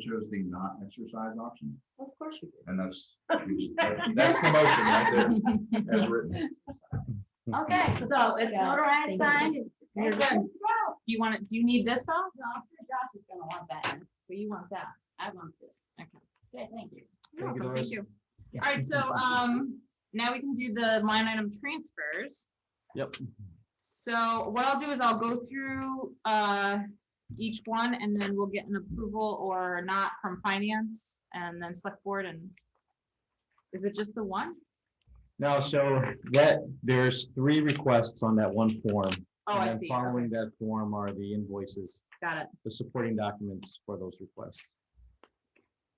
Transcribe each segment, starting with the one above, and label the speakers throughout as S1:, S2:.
S1: chose the not exercise option,
S2: Of course you
S1: and that's, that's the motion right there, as written.
S2: Okay, so it's
S3: Yeah, thank you.
S2: notarized, signed. and-
S3: You're
S2: Okay,
S3: good.
S2: good to go.
S3: You want it, do you need this though?
S2: No, I'm sure Josh is gonna want that, one, but you want that.
S3: I want this. Okay.
S2: Okay, thank you.
S3: You're
S4: Thank you,
S3: welcome.
S4: Doris.
S3: All right, so um, now we can do the line item transfers.
S4: Yep.
S3: So what I'll do is I'll go through uh each one and then we'll get an approval or not from finance and then select board and is it just the one?
S4: No, so that, there's three requests on that one form.
S3: Oh, I
S4: and then
S3: see. Okay,
S4: Following that form are the invoices,
S3: Got it.
S4: the supporting documents for those requests.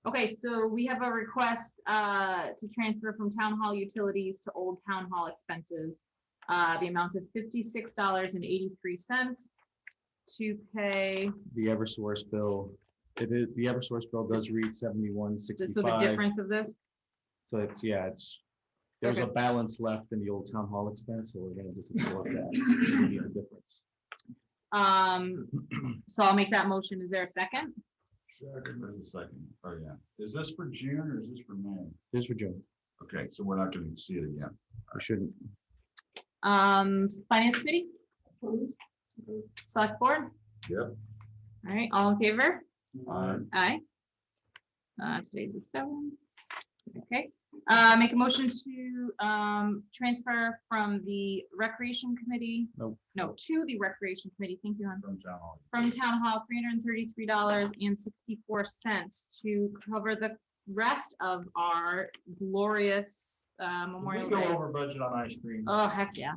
S3: Okay, so we have a request uh to transfer from town hall utilities to old town hall expenses. Uh, the amount of fifty-six dollars and eighty-three cents to pay,
S4: The Eversource bill, it is, the Eversource bill does read seventy-one
S3: just so the
S4: sixty-five.
S3: difference of this.
S4: So it's, yeah, it's, there's a
S3: Okay.
S4: balance left in the old town hall expense, so we're gonna just absorb that. and get the difference.
S3: Um, so I'll make that motion. Is there a second?
S1: There's a Second, oh yeah, is this for June or is this for May?
S4: This is for June.
S1: Okay, so we're not gonna see it again.
S4: We shouldn't.
S3: Um, finance committee,
S2: Approved.
S3: select board?
S1: Yep.
S3: All right, all in favor?
S1: Uh,
S3: Aye. Uh, today's the seven. Okay, uh, make a motion to, um, transfer from the recreation committee.
S4: Nope.
S3: No, to the recreation committee. Thank you, hon.
S1: From town hall.
S3: From town hall, three hundred and thirty-three dollars and sixty-four cents to cover the rest of our glorious, uh, Memorial Day.
S1: over budget on ice cream.
S3: Oh, heck yeah.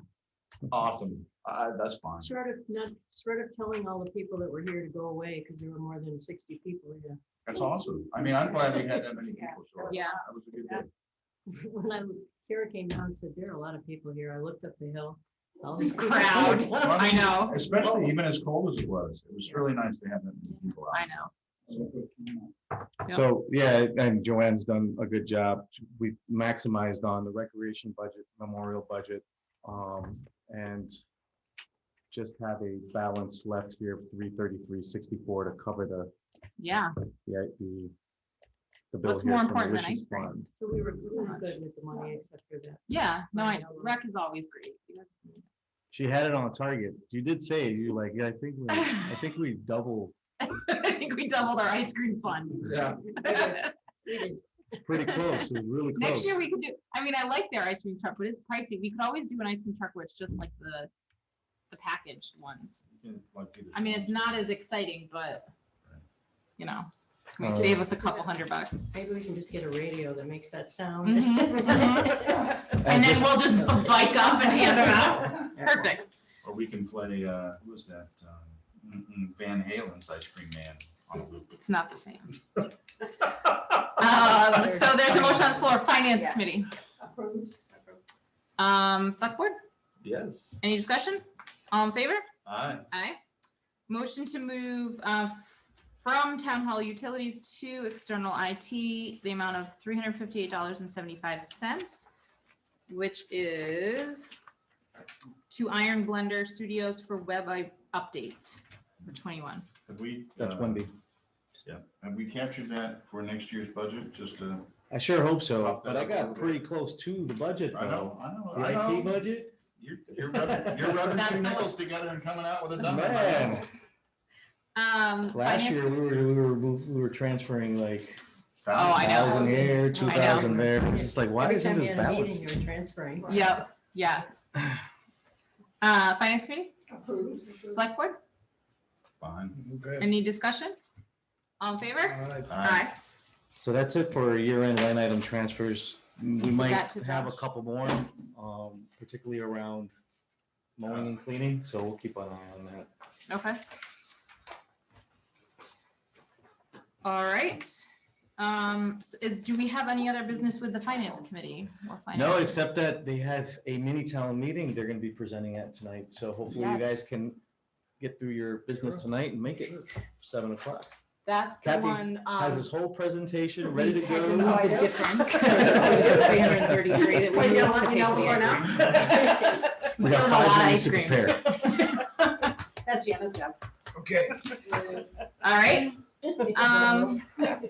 S1: Awesome, uh, that's fine.
S2: Sort of, not, sort of telling all the people that were here to go away because there were more than sixty people here.
S1: That's awesome. I mean, I'm glad we had that many people. so
S3: Yeah.
S1: That was a good day.
S2: When I, Kara came down and said, there are a lot of people here. I looked up the hill. all
S3: This
S2: these people."
S3: crowd. I know,
S1: Especially even as cold as it was, it was really nice to have that many people
S3: I
S1: out.
S3: know. Yep.
S4: So, yeah, and Joanne's done a good job. We've maximized on the recreation budget, memorial budget, um, and just have a balance left here, three thirty-three sixty-four to cover the,
S3: Yeah,
S4: the, the the bill
S3: What's more
S4: here from the
S3: important than
S4: wishes
S3: ice cream?
S4: fund.
S2: So we were we were good with the money except for that.
S3: yeah. No,
S2: I
S3: I know.
S2: know.
S3: Rec is always great.
S4: She had it on target. You did say, you like, yeah, I think, we- I think we doubled
S3: I think we doubled our ice cream fund.
S1: Yeah.
S2: We did
S4: pretty close, it was really
S3: Next
S4: close.
S3: year we could do, I mean, I like their ice cream truck, but it's pricey. We could always do an ice cream truck where it's just like the, the packaged ones. I mean, it's not as exciting, but, you know, it
S4: Uh,
S3: might save us a couple hundred bucks.
S2: Maybe we can just get a radio that makes that sound.
S3: Mhm, And then
S4: just-
S3: we'll just bike up and hand them out. Perfect.
S1: Or we can play, uh, who was that? um, mm, mm, Van Halen's Ice Cream Man on a loop.
S3: It's not the same. Um, so there's a motion on the floor, finance
S2: Yeah.
S3: committee. Um, select board,
S1: Yes,
S3: any discussion? All in favor?
S1: aye.
S3: Aye. Motion to move uh, from town hall utilities to external IT, the amount of three hundred fifty-eight dollars and seventy-five cents, which is to Iron Blender Studios for web i- updates for twenty-one.
S1: Have we?
S4: That's
S1: uh,
S4: Wendy.
S1: Yeah, have we captured that for next year's budget, just uh, to?
S4: I sure hope so,
S1: Up that
S4: but I
S1: up a
S4: got
S1: little
S4: pretty close to the budget
S1: I
S4: though.
S1: know, I know,
S4: The
S1: I
S4: IT
S1: know.
S4: budget?
S1: You're, you're rubbing, you're rubbing
S3: That's
S1: two
S3: the
S1: nickels together and coming out with a dime.
S4: Man,
S3: Um,
S4: last
S3: finance-
S4: year we were, we were, mov- we were transferring like
S3: Oh, I know.
S4: thousand here,
S2: Thousands.
S4: two
S2: I know.
S4: thousand there. It's just like, why
S2: Every
S4: isn't
S2: time
S4: this
S2: you had a meeting,
S4: balanced?
S2: you were transferring.
S3: Yep, yeah. Uh, finance committee, select board,
S1: Fine.
S5: Okay.
S3: any discussion? All in favor?
S5: Alright.
S3: Aye.
S4: So that's it for year-end line item transfers. We might
S3: got to
S4: have a
S3: finish.
S4: couple more, um, particularly around mowing and cleaning, so we'll keep an eye on that.
S3: Okay. All right. Um, so is, do we have any other business with the finance committee? or
S4: No,
S3: finance?
S4: except that they have a mini town meeting they're gonna be presenting at tonight, so hopefully you
S3: Yes.
S4: guys can get through your business
S5: Sure.
S4: tonight and make it seven o'clock.
S3: That's the
S4: Kathy
S3: one.
S4: Has this
S3: um,
S4: whole presentation ready to
S3: I
S4: go.
S3: don't know the difference. Three hundred and thirty-three that we
S2: Well, you
S3: need
S2: know what?
S3: to
S2: We
S3: pay
S2: know
S3: for
S2: what we're
S3: now.
S4: We
S3: There's
S4: got
S3: a
S4: five
S3: lot of ice
S4: minutes to
S3: cream.
S4: prepare.
S2: That's Vienna's job.
S5: Okay.
S3: All right. Um,